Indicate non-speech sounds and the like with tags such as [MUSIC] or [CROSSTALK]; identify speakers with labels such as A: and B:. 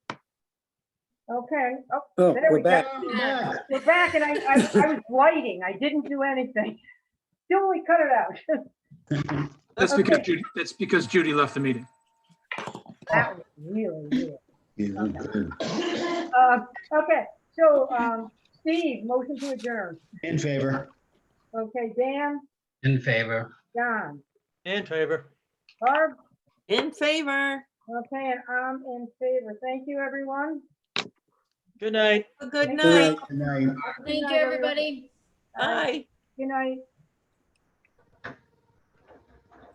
A: Okay, oh,
B: Oh,
A: there
B: we're
A: we go.
B: back.
C: Yeah.
A: We're back and I, I, I was lighting. I didn't do anything. Still, we cut it out. [LAUGHS]
D: That's
A: Okay.
D: because Judy, that's because Judy left the meeting.
A: That was really weird.
B: Yeah, we're good.
A: Uh, okay, so, um, Steve, motion to adjourn.
C: In favor.
A: Okay, Dan,
C: In favor.
A: John,
E: In favor.
A: Barb,
F: In favor.
A: okay, and I'm in favor. Thank you, everyone.
E: Good night.
F: Good
A: Good
F: night.
C: Good night.
A: Good
G: Thank
A: night, everyone.
G: you, everybody.
A: Uh,
F: Bye.
A: Good night.